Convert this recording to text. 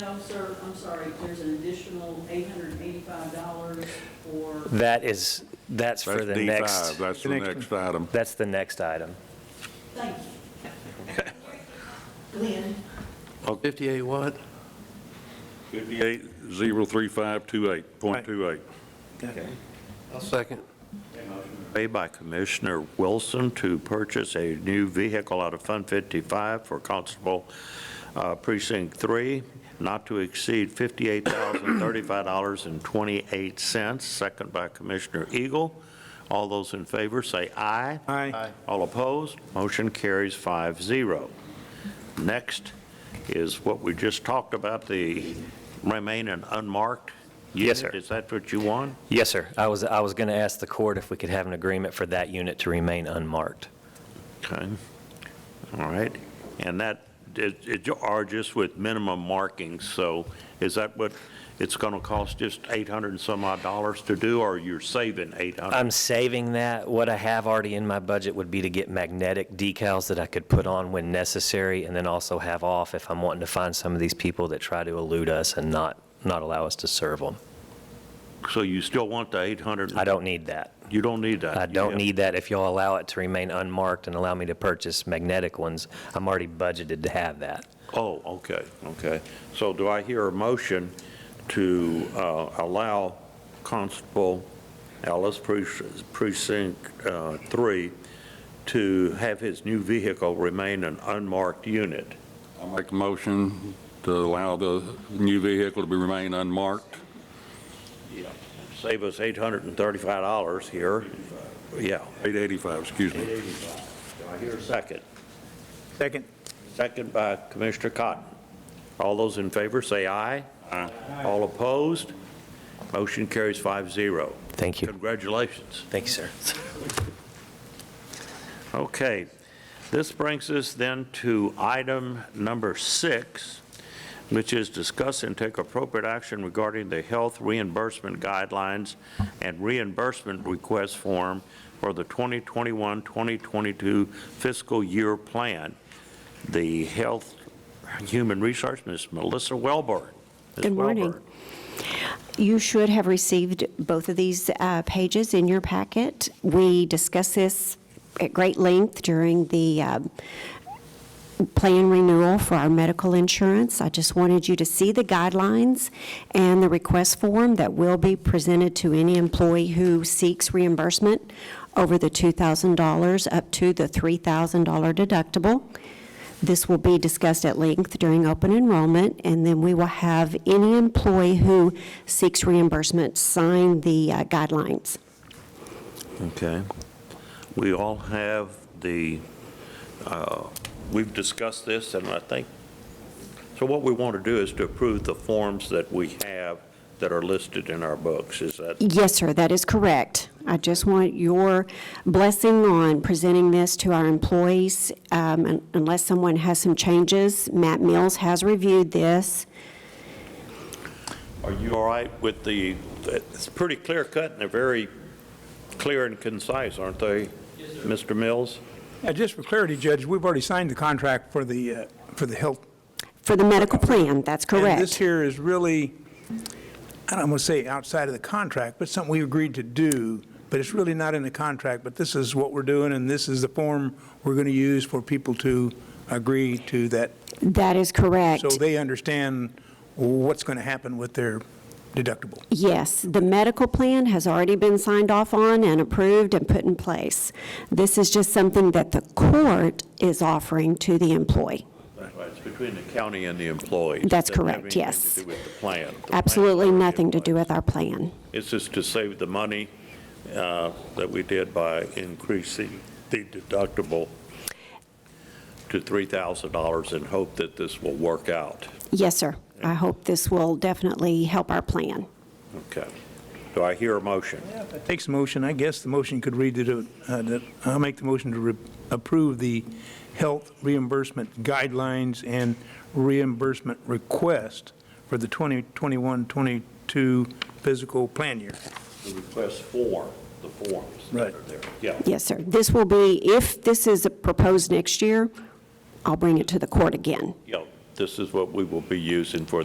No, sir, I'm sorry, there's an additional $885 for, That is, that's for That's the D next, five, that's the next item. that's the next item. thank you. Glenn, Fifty-eight what? Fifty-eight, zero, three, five, two, eight, point two eight. Okay. I'll second. Made by Commissioner Wilson to purchase a new vehicle out of Fund 55 for Constable uh, Precinct 3, not to exceed $58,035.28. Second by Commissioner Eagle. All those in favor, say aye. Aye. All opposed, motion carries 5-0. Next is what we just talked about, the remain an unmarked unit. Yes, sir. Is that what you want? Yes, sir. I was, I was going to ask the court if we could have an agreement for that unit to remain unmarked. Okay, all right, and that, it, it are just with minimum markings, so is that what it's gonna cost, just eight hundred and some odd dollars to do, or you're saving eight hundred? I'm saving that. What I have already in my budget would be to get magnetic decals that I could put on when necessary and then also have off if I'm wanting to find some of these people that try to elude us and not, not allow us to serve them. So you still want the eight hundred? I don't need that. You don't need that? I don't Yeah. need that. If y'all allow it to remain unmarked and allow me to purchase magnetic ones, I'm already budgeted to have that. Oh, okay, okay. So do I hear a motion to uh, allow Constable Ellis Precinct- Precinct uh, 3 to have his new vehicle remain an unmarked unit? I make a motion to allow the new vehicle to be remain unmarked. Save us $835 here. Yeah. Eight eighty-five, excuse me. Do I hear a second? Second. Second by Commissioner Cotton. All those in favor, say aye. Aye. All opposed? Motion carries 5-0. Thank you. Congratulations. Thank you, sir. Okay, this brings us then to item number six, which is discuss and take appropriate action regarding the health reimbursement guidelines and reimbursement request form for the 2021-2022 fiscal year plan. The Health Human Resource, Ms. Melissa Welborn. Ms. Good morning. Welborn. You should have received both of these uh, pages in your packet. We discussed this at great length during the um, plan renewal for our medical insurance. I just wanted you to see the guidelines and the request form that will be presented to any employee who seeks reimbursement over the $2,000 up to the $3,000 deductible. This will be discussed at length during open enrollment, and then we will have any employee who seeks reimbursement sign the uh, guidelines. Okay. We all have the, uh, we've discussed this, and I think, so what we want to do is to approve the forms that we have that are listed in our books, is that? Yes, sir, that is correct. I just want your blessing on presenting this to our employees, um, un- unless someone has some changes. Matt Mills has reviewed this. Are you all right with the, it's pretty clear cut, and they're very clear and concise, aren't they? Mr. Mills? Yeah, just for clarity, Judge, we've already signed the contract for the, uh, for the health. For the medical plan, that's And this correct. here is really, I don't want to say outside of the contract, but something we agreed to do, but it's really not in the contract, but this is what we're doing, and this is the form we're going to use for people to agree to that, That is correct. so they understand what's going to happen with their deductible. Yes, the medical plan has already been signed off on and approved and put in place. This is just something that the court is offering to the employee. It's between the county and the employees. That's Doesn't have correct, anything yes. to do with the plan. The plan's Absolutely already in nothing to place. do with our plan. It's just to save the money uh, that we did by increasing the deductible to $3,000 and hope that this will work out. Yes, sir. I hope this will definitely help our plan. Okay. Do I hear a motion? Takes a motion, I guess the motion could read that, uh, that, I'll make the motion to re- approve the health reimbursement guidelines and reimbursement request for the 2021-22 physical plan year. The request form, the forms that are there. Yeah. Yes, sir. This will be, if this is proposed next year, I'll bring it to the court again. Yeah, this is what we will be using for the